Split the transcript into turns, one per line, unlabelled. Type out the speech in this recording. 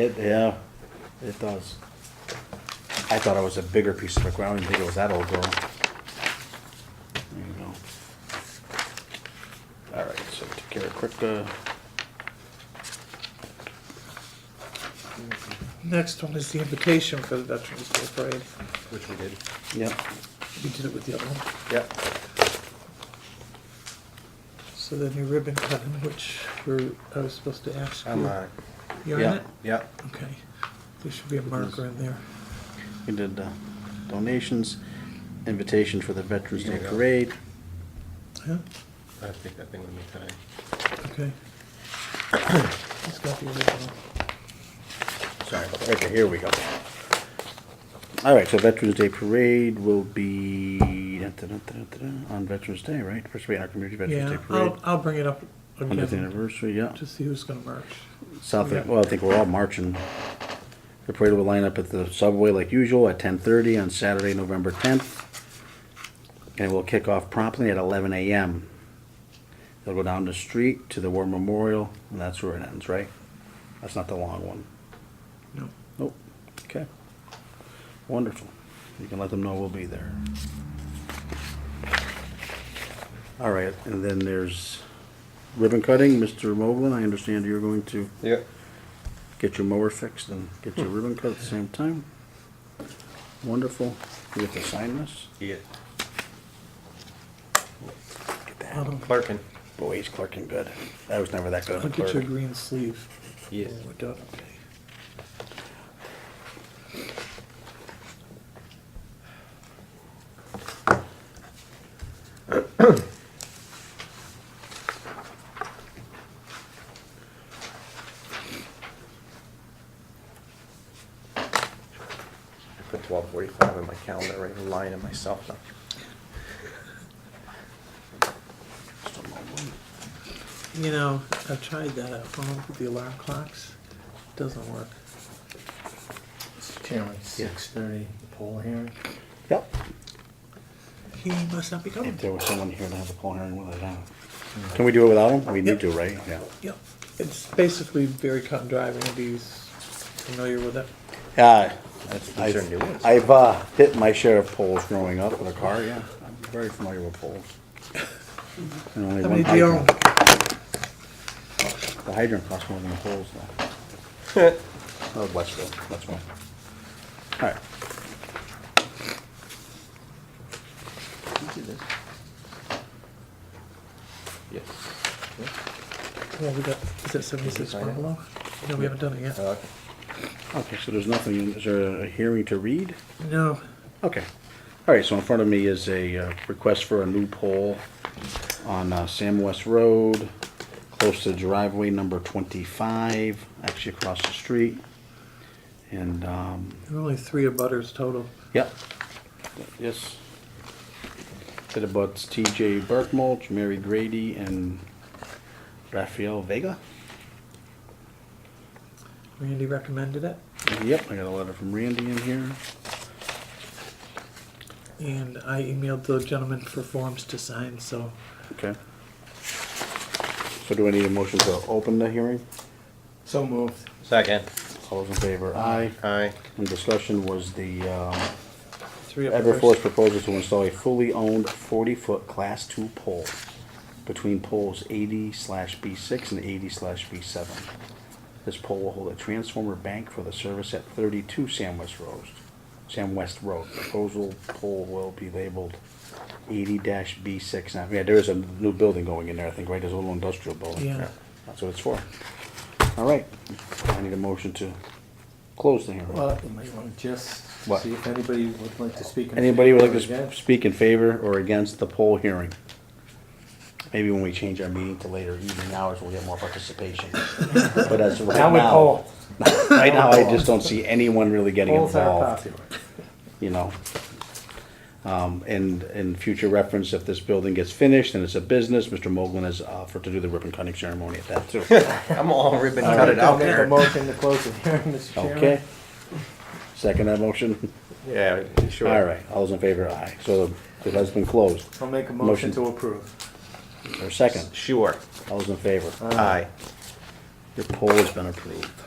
It, yeah, it does. I thought it was a bigger piece of equipment. I didn't think it was that old girl. There you go. All right, so we took care of Kripke.
Next one is the invitation for the Veterans Day Parade.
Which we did. Yep,
We did it with the other one.
yep.
So the new ribbon cutting, which we're, I was supposed to ask you.
I'm, uh,
You on
yeah,
it?
yeah.
Okay. There should be a marker in there.
We did uh, donations, invitation for the Veterans Day Parade.
Yeah,
I have to take that thing with me today.
okay. It's got the original.
Sorry, about that. okay, here we go. All right, so Veterans Day Parade will be dun-dun-dun-dun-dun, on Veterans Day, right? First week in our community, Veterans
Yeah, Oh,
Day Parade.
I'll, I'll bring it up
Hundredth
again
anniversary, yeah.
to see who's gonna march.
South,
yeah.
well, I think we're all marching. The parade will line up at the subway like usual at ten thirty on Saturday, November tenth. And it will kick off promptly at eleven AM. They'll go down the street to the War Memorial, and that's where it ends, right? That's not the long one.
No.
Nope. Okay. Wonderful. You can let them know we'll be there. All right, and then there's ribbon cutting. Mr. Moblin, I understand you're going to
Yep.
get your mower fixed and get your ribbon cut at the same time. Wonderful. You have to sign this.
Yeah.
Get that.
I'll,
Clerkin.
Boy, he's clerking good. I was never that good of
I'll
a
get you a
clerk.
green sleeve.
Yeah.
when We're done, okay.
I put twelve forty-five in my calendar, right, I'm lying to myself now.
Mr. Moblin.
You know, I've tried that at home with the alarm clocks. Doesn't work.
Mr. Chairman, six thirty, the poll hearing.
Yep.
He must not be coming.
If there was someone here to have a poll hearing, we'll let it out. Can we do it without him? We need to, right? Yeah.
Yep, it's basically very cut and dry, if anybody's familiar with it.
Yeah,
I'm sure new ones.
I've, I've uh, hit my share of poles growing up with a car, yeah. I'm very familiar with poles. And only
Mm-hmm. How
one
many do you own?
hydrant. The hydrant costs more than the poles though. Oh, Westfield, that's one. All right.
Yes.
Well, we got, is that seventy-six Uh,
Did you sign it?
Bungalow? No, we haven't done it yet.
Okay.
Okay, so there's nothing, is there a hearing to read?
No,
Okay. All right, so in front of me is a uh, request for a new pole on uh, Sam West Road, close to driveway number 25, actually across the street. And, um,
there are only three abutters total.
yep. Yes. It abuts TJ Burkmulch, Mary Grady, and Rafael Vega.
Randy recommended it,
Yep, I got a letter from Randy in here.
and I emailed the gentleman for forms to sign, so
Okay. So do I need a motion to open the hearing?
So moved.
Second.
All those in favor? Aye.
Aye.
And discussion was the um,
three
Everforth
abutters.
proposal to install a fully owned forty-foot class two pole between poles eighty slash B six and eighty slash B seven. This pole will hold a transformer bank for the service at thirty-two Sam West Road. Sam West Road. Proposal pole will be labeled eighty dash B six. Now, yeah, there is a new building going in there, I think, right? There's a little industrial building.
Yeah.
That's what it's for. All right. I need a motion to close the hearing.
Well, you might want to just
What?
see if anybody would like to speak. in
Anybody would like
favor
to
against.
s- speak in favor or against the poll hearing? Maybe when we change our meeting to later evening hours, we'll get more participation. But as of right
Now we
now,
poll.
right now, I just don't see anyone really getting
Polls are
involved,
popular.
you know? Um, and, and future reference, if this building gets finished and it's a business, Mr. Moglen has offered to do the ribbon cutting ceremony at that too.
I'm all ribbon
All
cut
right,
it
I'll
out
make a
there.
motion to close the hearing, Mr. Chairman.
Okay? Second that motion?
Yeah, sure.
All right, all those in favor, aye. So it has been closed.
I'll make a
Motion.
motion to approve.
Or second,
Sure.
all those in favor?
Aye.
Your poll has been approved.